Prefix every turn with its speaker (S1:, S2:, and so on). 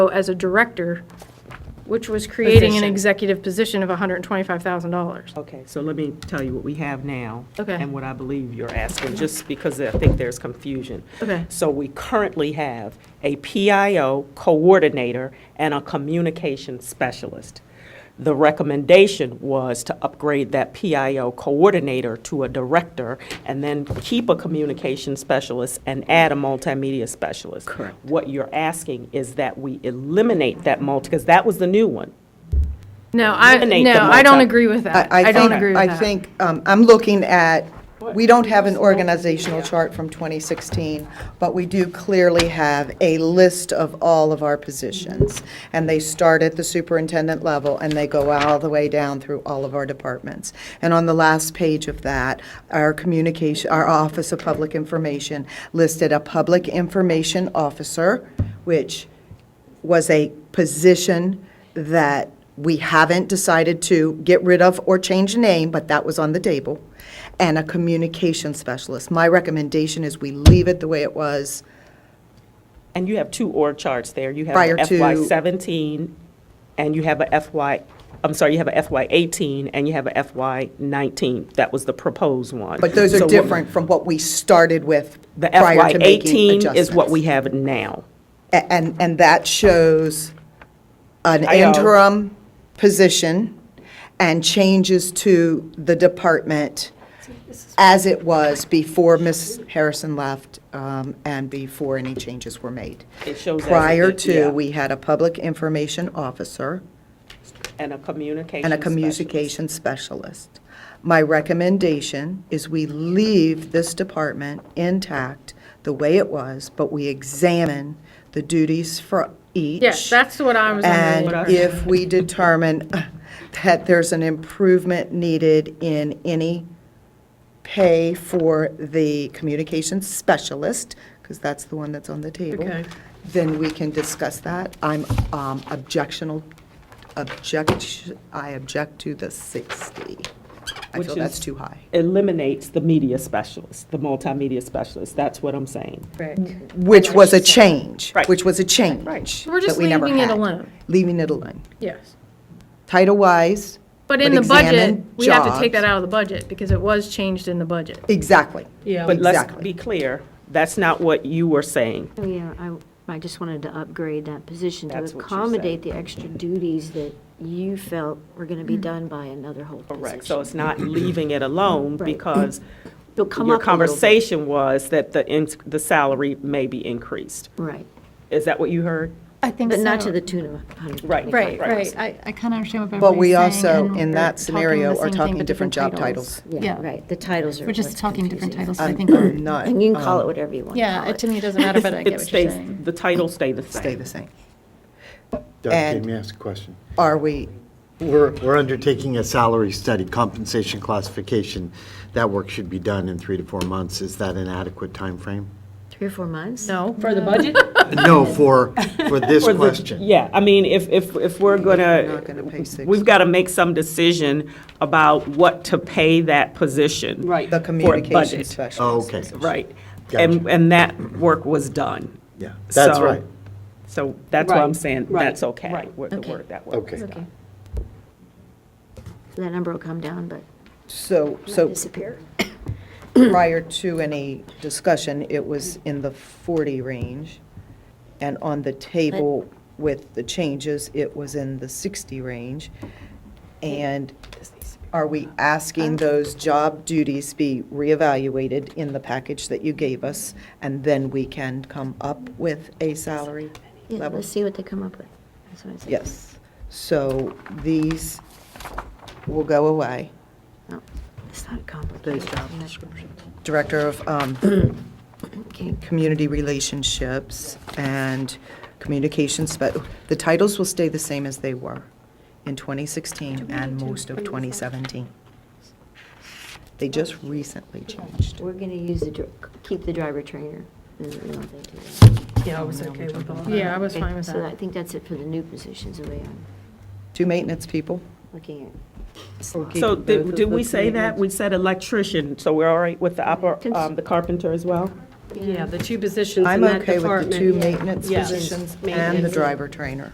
S1: as a director, which was creating an
S2: Position.
S1: executive position of $125,000.
S2: Okay, so let me tell you what we have now.
S1: Okay.
S2: And what I believe you're asking, just because I think there's confusion.
S1: Okay.
S2: So we currently have a PIO coordinator and a communication specialist. The recommendation was to upgrade that PIO coordinator to a director and then keep a communication specialist and add a multimedia specialist. Correct. What you're asking is that we eliminate that multi, because that was the new one.
S1: No, I,
S2: Eliminate the
S1: no, I don't
S2: multi-
S1: agree with that.
S3: I
S1: I don't
S3: think-
S1: agree with that.
S3: I think, um, I'm looking at, we don't have an organizational chart from 2016, but we do clearly have a list of all of our positions. And they start at the superintendent level, and they go all the way down through all of our departments. And on the last page of that, our communication, our Office of Public Information listed a public information officer, which was a position that we haven't decided to get rid of or change the name, but that was on the table, and a communication specialist. My recommendation is we leave it the way it was.
S2: And you have two org charts there. You have
S3: Prior
S2: a
S3: to-
S2: FY seventeen, and you have a FY, I'm sorry, you have a FY eighteen, and you have a FY nineteen. That was the proposed one.
S3: But those
S2: So
S3: are
S2: what-
S3: different from what we started with
S2: The
S3: prior
S2: FY
S3: to making
S2: eighteen
S3: adjustments.
S2: is what we have now.
S3: A- And, and that shows an
S2: I know.
S3: interim position and changes to the department as it was before Ms. Harrison left um, and before any changes were made.
S2: It shows as a-
S3: Prior
S2: yeah.
S3: to, we had a public information officer
S2: And a communication.
S3: and a communication specialist. My recommendation is we leave this department intact the way it was, but we examine the duties for each.
S1: Yes, that's what I was under
S3: And
S1: the
S3: if we determine that there's an improvement needed in any pay for the communications specialist, because that's the one that's on the table,
S1: Okay.
S3: then we can discuss that. I'm um, objectional, object, I object to the 60. I
S2: Which
S3: feel that's
S2: is-
S3: too high.
S2: specialist. Eliminates the media specialist, the multimedia specialist. That's what I'm saying.
S3: Which was a change.
S2: Right.
S3: Which was a change.
S2: Right.
S1: We're just
S3: that we never
S1: leaving it
S3: had.
S1: alone.
S3: Leaving it alone.
S1: Yes.
S3: Title-wise.
S1: But in the budget,
S3: examine
S1: we have to take
S3: jobs.
S1: that out of the budget because it was changed in the budget.
S3: Exactly.
S4: Yeah.
S2: But let's
S3: Exactly.
S2: be clear, that's not what you were saying.
S5: Oh, yeah, I, I just wanted to upgrade that position to
S2: That's what you said.
S5: accommodate the extra duties that you felt were gonna
S6: Mm.
S5: be done by another whole
S2: Correct.
S5: position.
S2: So it's not leaving it alone
S5: Right.
S2: because
S5: It'll come
S2: Your
S5: up a little bit.
S2: conversation was that the, in- the salary may be increased.
S5: Right,
S2: Is that what you heard?
S6: I think
S5: but not to
S6: so.
S5: the tune of a hundred.
S2: Right.
S6: Right,
S2: Right.
S6: right. I, I kind of understand what
S3: But we
S6: everybody's saying.
S3: also,
S6: and
S3: in
S6: we're
S3: that
S6: talking the
S3: scenario,
S6: same
S3: are
S6: thing,
S3: talking
S6: but
S3: different job titles. Um,
S5: Yeah,
S6: Yeah.
S5: right, the titles are
S6: We're just
S5: what's
S6: talking different
S5: confusing.
S6: titles, I think. are-
S3: Not
S5: And you can
S2: Um,
S5: call it whatever you want. to
S6: Yeah,
S5: call
S6: it-
S5: it.
S6: to me, it doesn't matter, but I
S2: It
S6: get what you're
S2: stays-
S6: saying.
S2: The title stay the same.
S3: stay the same.
S7: Doug,
S3: And-
S7: let me ask a question.
S3: Are we,
S7: We're, we're undertaking a salary study, compensation classification. That work should be done in three to four months. Is that an adequate timeframe?
S5: Three or four months?
S1: No?
S4: For the budget?
S7: No, for, for this
S2: For the-
S7: question.
S2: Yeah, I mean, if, if, if we're gonna,
S3: not gonna pay six.
S2: we've gotta make some decision about what to pay that position.
S4: Right.
S3: the communication
S2: budget.
S7: Oh,
S3: specialist?
S7: Okay.
S2: Right. And,
S7: Gotcha.
S2: and that work was done.
S7: Yeah, that's
S2: So-
S7: right.
S2: So that's why I'm
S4: Right,
S2: saying,
S4: right,
S2: that's okay,
S4: right.
S2: with the
S5: Okay.
S2: word that way.
S7: Okay.
S5: Okay. So That number will come down, but
S3: So,
S5: not
S3: so
S5: disappear.
S3: prior to any discussion, it was in the 40 range. And on the table with the changes, it was in the 60 range. And are we asking those job duties be reevaluated in the package that you gave us? And then we can come up with a salary
S5: Yeah,
S3: level?
S5: let's see what they come up with. That's what I said.
S3: Yes. So these will go away.
S5: No, It's not complicated.
S3: Director of um,
S5: Okay,
S3: Community Relationships and Communications, but the titles will stay the same as they were in 2016 and most of 2017. They just recently changed.
S5: we're gonna use the, dr- keep the driver trainer. We don't think do that.
S4: Yeah, I was okay with all that.
S1: Yeah, I was
S5: Okay,
S1: fine with
S5: So I
S1: that.
S5: think that's it for the new positions, the way I'm
S3: Two maintenance people.
S5: looking at.
S2: So did, did we say that? We said electrician, so we're all right with the opera, um, the carpenter as well?
S4: Yeah, the two positions in
S3: I'm
S4: that
S3: okay with
S4: department.
S3: the two maintenance
S4: Yes.
S3: positions and the
S4: Maintenance.
S3: driver trainer.